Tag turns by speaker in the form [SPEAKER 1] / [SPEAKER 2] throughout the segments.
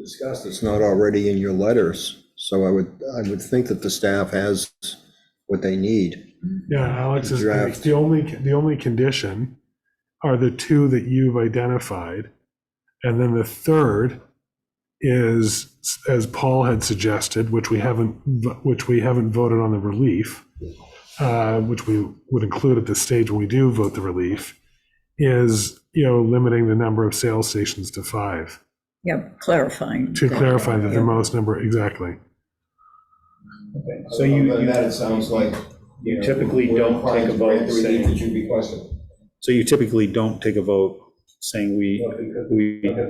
[SPEAKER 1] discussed, it's not already in your letters, so I would, I would think that the staff has what they need.
[SPEAKER 2] Yeah, Alex is, right.
[SPEAKER 1] Draft.
[SPEAKER 2] the only, the only condition are the two that you've identified. And then the third is, as Paul had suggested, which we haven't, which we haven't voted on the relief, uh, which we would include at this stage when we do vote the relief, is, you know, limiting the number of sales stations to five,
[SPEAKER 3] Yeah, clarifying.
[SPEAKER 2] to
[SPEAKER 3] that.
[SPEAKER 2] clarify that the
[SPEAKER 3] Yeah.
[SPEAKER 2] most number, exactly.
[SPEAKER 4] So you,
[SPEAKER 5] Other than
[SPEAKER 4] you-
[SPEAKER 5] that, it sounds like.
[SPEAKER 4] you
[SPEAKER 5] know,
[SPEAKER 4] typically
[SPEAKER 5] we're
[SPEAKER 4] don't
[SPEAKER 5] inclined
[SPEAKER 4] take a
[SPEAKER 5] to grant
[SPEAKER 4] vote
[SPEAKER 5] the relief
[SPEAKER 4] saying-
[SPEAKER 5] That you requested.
[SPEAKER 4] so you typically don't take a vote saying we, we, okay,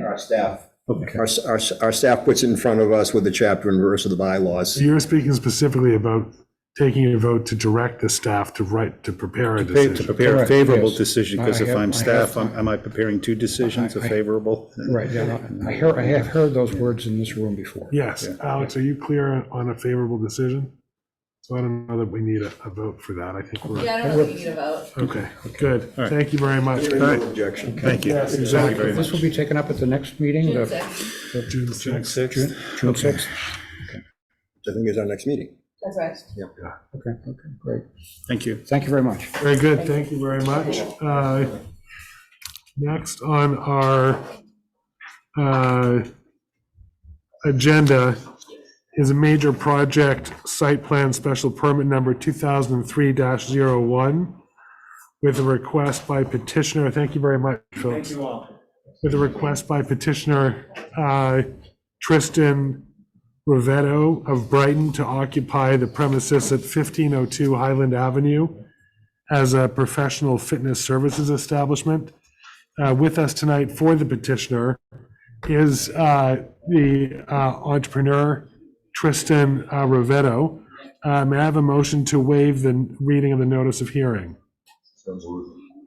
[SPEAKER 5] Our staff,
[SPEAKER 4] okay.
[SPEAKER 1] Our, our, our staff puts it in front of us with the chapter and verse of the
[SPEAKER 2] So
[SPEAKER 1] bylaws.
[SPEAKER 2] You're speaking specifically about taking a vote to direct the staff to write, to prepare a
[SPEAKER 4] Prepare- To
[SPEAKER 2] decision.
[SPEAKER 4] prepare a
[SPEAKER 6] Correct,
[SPEAKER 4] favorable
[SPEAKER 6] yes.
[SPEAKER 4] decision, because
[SPEAKER 6] I
[SPEAKER 4] if
[SPEAKER 6] have-
[SPEAKER 4] I'm
[SPEAKER 6] I have-
[SPEAKER 4] staff, I'm- am I preparing two decisions, a
[SPEAKER 6] I- I-
[SPEAKER 4] favorable?
[SPEAKER 6] Right, yeah, no, I hear, I have heard those words in this room before.
[SPEAKER 2] Yes, Alex, are you clear on a favorable decision? So I don't know that we need a, a vote for that, I think we're,
[SPEAKER 7] Yeah, I don't know if you need a vote.
[SPEAKER 2] okay, good,
[SPEAKER 4] All right.
[SPEAKER 2] thank you very much.
[SPEAKER 1] No objection.
[SPEAKER 4] Thank you.
[SPEAKER 2] Yes,
[SPEAKER 4] Thank you
[SPEAKER 2] exactly.
[SPEAKER 4] very
[SPEAKER 6] This
[SPEAKER 4] much.
[SPEAKER 6] will be taken up at the next meeting,
[SPEAKER 7] June
[SPEAKER 6] the
[SPEAKER 7] sixth.
[SPEAKER 2] June 6th.
[SPEAKER 4] Sixth.
[SPEAKER 6] June 6th.
[SPEAKER 1] Which I think is our next meeting.
[SPEAKER 7] That's right.
[SPEAKER 6] Okay, okay, great.
[SPEAKER 4] Thank you.
[SPEAKER 6] Thank you very much.
[SPEAKER 2] Very good, thank you very much. Uh, Next on our uh, agenda is a major project site plan special permit number 2003-01 with a request by petitioner, thank you very much, folks. Thank you all. With a request by petitioner uh, Tristan Rivetto of Brighton to occupy the premises at 1502 Highland Avenue as a professional fitness services establishment. Uh, With us tonight for the petitioner is uh, the uh, entrepreneur Tristan uh, Rovetto. Uh, May I have a motion to waive the reading of the notice of hearing? I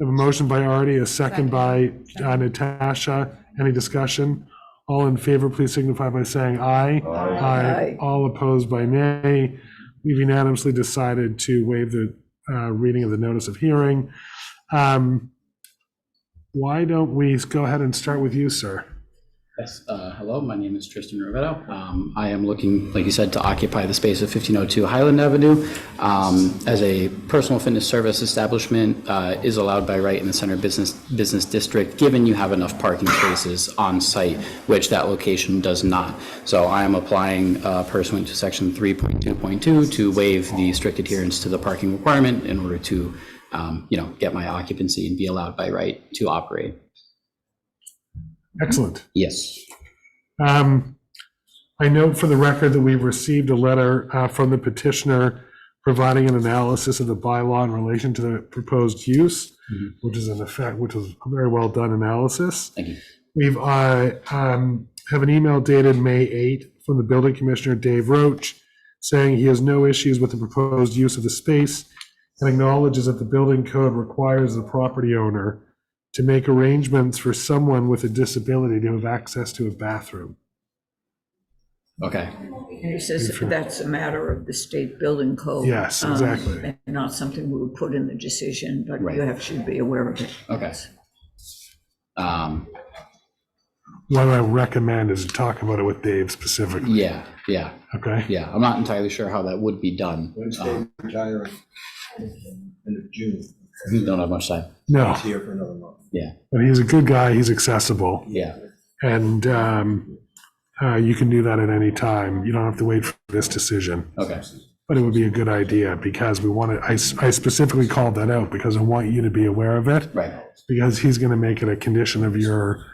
[SPEAKER 2] have a motion by Artie, a second by uh, Natasha. Any discussion? All in favor, please signify by saying aye. Aye.
[SPEAKER 3] Aye.
[SPEAKER 2] All opposed by nay. We've unanimously decided to waive the uh, reading of the notice of hearing. Um, Why don't we go ahead and start with you, sir?
[SPEAKER 8] Yes, uh, hello, my name is Tristan Rovetto. Um, I am looking, like you said, to occupy the space of 1502 Highland Avenue um, as a personal fitness service establishment uh, is allowed by right in the center business, business district, given you have enough parking spaces on site, which that location does not. So I am applying uh, pursuant to section 3.2.2 to waive the strict adherence to the parking requirement in order to, um, you know, get my occupancy and be allowed by right to operate.
[SPEAKER 2] Excellent.
[SPEAKER 8] Yes.
[SPEAKER 2] Um, I note for the record that we've received a letter uh, from the petitioner providing an analysis of the bylaw in relation to the proposed use,
[SPEAKER 8] Mhm.
[SPEAKER 2] which is an effect, which was a very well done analysis.
[SPEAKER 8] Thank you.
[SPEAKER 2] We've, I um, have an email dated May 8 from the building commissioner, Dave Roach, saying he has no issues with the proposed use of the space and acknowledges that the building code requires the property owner to make arrangements for someone with a disability to have access to a bathroom.
[SPEAKER 8] Okay.
[SPEAKER 3] And he says that's a matter of the state building code.
[SPEAKER 2] Yes,
[SPEAKER 3] um,
[SPEAKER 2] exactly.
[SPEAKER 3] and Not something we would put in the decision, but
[SPEAKER 8] Right.
[SPEAKER 3] you have, should be aware of it.
[SPEAKER 8] Okay. Um,
[SPEAKER 2] What I recommend is to talk about it with Dave specifically,
[SPEAKER 8] yeah, yeah,
[SPEAKER 2] okay?
[SPEAKER 8] yeah. I'm not entirely sure how that would be done.
[SPEAKER 1] Wednesday,
[SPEAKER 8] Um,
[SPEAKER 1] retiring, end of June,
[SPEAKER 8] Don't have much time.
[SPEAKER 2] No,
[SPEAKER 1] here for another month.
[SPEAKER 2] but he's a good guy, he's accessible,
[SPEAKER 8] Yeah,
[SPEAKER 2] and um, uh, you can do that at any time. You don't have to wait for this decision.
[SPEAKER 8] okay,
[SPEAKER 2] But it would be a good idea because we want to, I s- I specifically called that out because I want you to be aware of it.
[SPEAKER 8] right,
[SPEAKER 2] Because he's going to make it a condition of your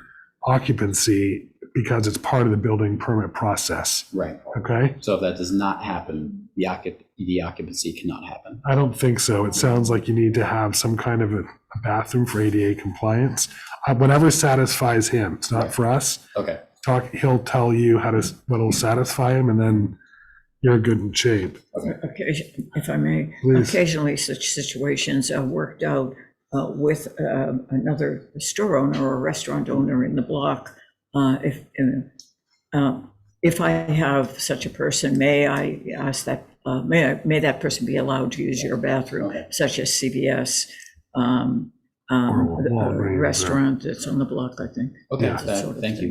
[SPEAKER 2] occupancy because it's part of the building permit process,
[SPEAKER 8] right.
[SPEAKER 2] okay?
[SPEAKER 8] So if that does not happen, the occup, the occupancy cannot happen.
[SPEAKER 2] I don't think so. It sounds like you need to have some kind of a a bathroom for ADA compliance. Uh, Whatever satisfies him, it's not for us.
[SPEAKER 8] Okay,
[SPEAKER 2] Talk, he'll tell you how to, s- what'll satisfy him and then you're good in shape.
[SPEAKER 3] Occasion- If I may,
[SPEAKER 2] Please.
[SPEAKER 3] occasionally such situations are worked out uh, with uh, another store owner or restaurant owner in the block. Uh, If, uh, uh, if I have such a person, may I ask that, uh, may, I- may that person be allowed to use your bathroom,
[SPEAKER 8] Okay.
[SPEAKER 3] such as CVS? um, um,
[SPEAKER 2] Or Walgreens,
[SPEAKER 3] the, uh,
[SPEAKER 2] or-
[SPEAKER 3] restaurant that's on the block, I think.
[SPEAKER 8] Okay,
[SPEAKER 3] That
[SPEAKER 8] that-
[SPEAKER 3] sort of
[SPEAKER 8] thank you.
[SPEAKER 3] thing.